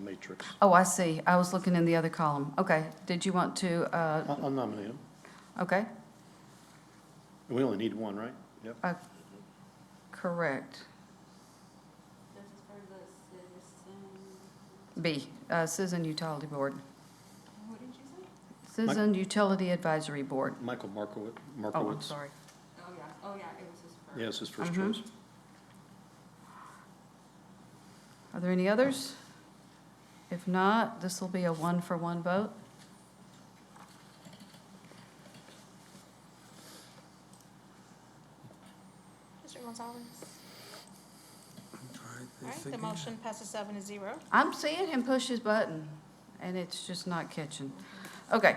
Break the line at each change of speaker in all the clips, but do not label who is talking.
matrix.
Oh, I see. I was looking in the other column. Okay. Did you want to, uh,
I'll I'll nominate him.
okay,
We only need one, right? Yep.
uh, correct. B, uh, Citizen Utility Board. Citizen Utility Advisory Board.
Michael Markowi- Markowitz.
Oh, I'm sorry.
Oh, yeah, oh, yeah, it was his first.
Yes, his first
Mhm.
choice.
Are there any others? If not, this will be a one-for-one vote.
Mr. Gonzalez? All right, the motion passes seven to zero.
I'm seeing him push his button, and it's just not catching. Okay.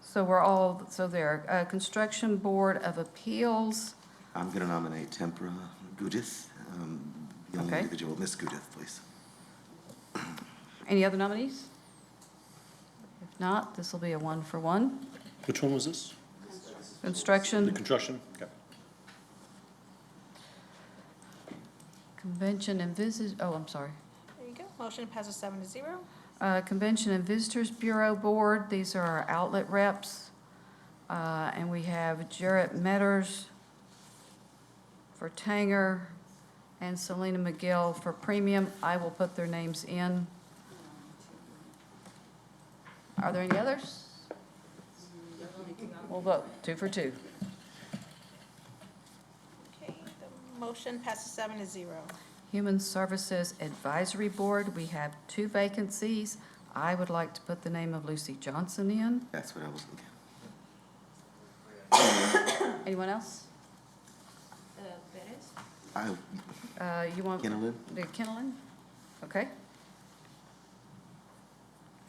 So we're all, so there, uh, Construction Board of Appeals,
I'm going to nominate Tempura Gudis, um, the only
Okay.
individual, Miss Gudis, please.
any other nominees? If not, this will be a one-for-one.
Which one was this? The
Construction,
construction? Okay.
Convention and Visit, oh, I'm sorry.
There you go. Motion passes seven to zero.
Uh, Convention and Visitors Bureau Board, these are our outlet reps. Uh, And we have Jarrett Metters for Tanger and Selena McGill for Premium. I will put their names in. Are there any others? We'll vote, two for two.
Okay, the motion passes seven to zero.
Human Services Advisory Board, we have two vacancies. I would like to put the name of Lucy Johnson in.
That's what I was thinking.
Anyone else?
Uh, Perez?
I,
Uh, You want?
Kennelin?
The Kennelin? Okay.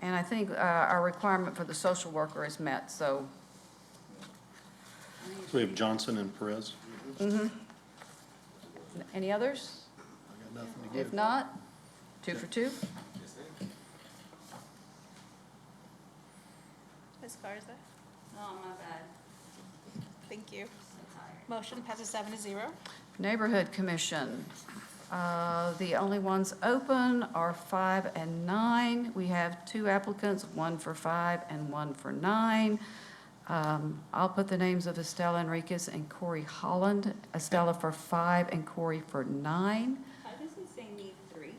And I think uh, our requirement for the social worker is met, so,
So we have Johnson and Perez.
any others?
I got nothing to
If
give.
not, two for two?
Ms. Garza?
Oh, my bad,
Thank you.
so tired.
Motion passes seven to zero.
Neighborhood Commission. Uh, The only ones open are five and nine. We have two applicants, one for five and one for nine. Um, I'll put the names of Estella Enriquez and Corey Holland. Estella for five and Corey for nine.
How does it say need three?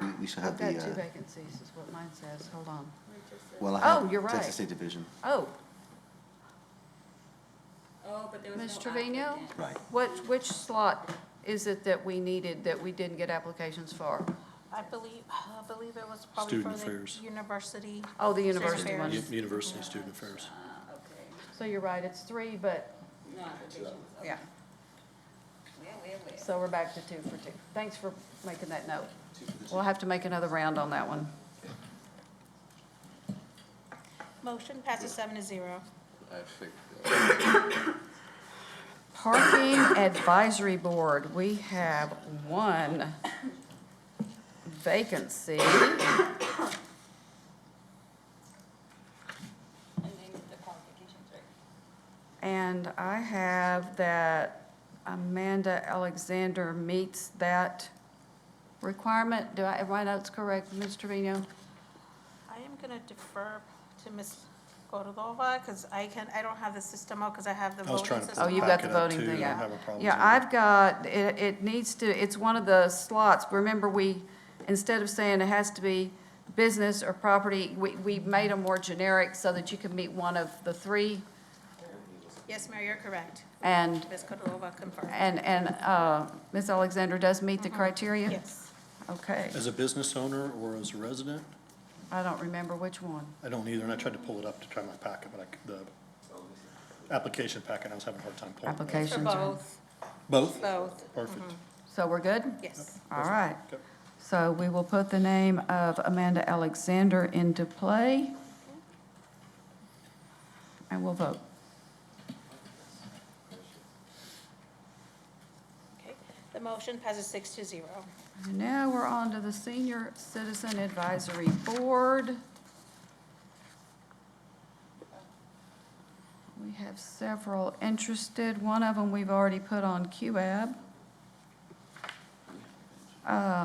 we- we should have
I've
the,
got two
uh,
vacancies, is what mine says, hold on.
well, I
Oh,
have
you're right.
Texas State Division.
Oh,
Oh, but there was no
Ms. Trevino?
applicant.
Right.
Which, which slot is it that we needed that we didn't get applications for?
I believe, I believe it was probably for
Student
the
affairs.
university.
Oh, the
Student
university
affairs.
one.
Yep, University Student Affairs.
Uh, okay,
So you're right, it's three, but,
no applications, okay.
yeah,
Well, well, well.
so we're back to two for two. Thanks for making that note. We'll have to make another round on that one.
Motion passes seven to zero.
I think
Parking Advisory Board, we have one vacancy.
And they need the qualifications, right?
And I have that Amanda Alexander meets that requirement. Do I, am my notes correct, Ms. Trevino?
I am going to defer to Ms. Cordova because I can, I don't have the system out because I have the
I was
voting
trying to
system.
Oh, you've got
Back
the
it up
voting
too,
thing,
I
yeah.
have a problem
Yeah,
with that.
I've got, it, it needs to, it's one of the slots. Remember, we, instead of saying it has to be business or property, we, we made them more generic so that you can meet one of the three.
Yes, Mayor, you're correct.
And,
Ms. Cordova confirmed.
and, and, uh, Ms. Alexander does meet the criteria?
Yes.
Okay,
As a business owner or as a resident?
I don't remember which one.
I don't either, and I tried to pull it up to try my packet, but I, c- the application packet, I was having a hard time pulling. it up.
For
Applications are-
both,
Both?
both,
Mm-hmm.
Perfect.
So we're good?
yes.
All right.
Okay.
So we will put the name of Amanda Alexander into play. And we'll vote.
Okay, the motion passes six to zero.
And now we're on to the Senior Citizen Advisory Board. We have several interested. One of them we've already put on QAB. Uh,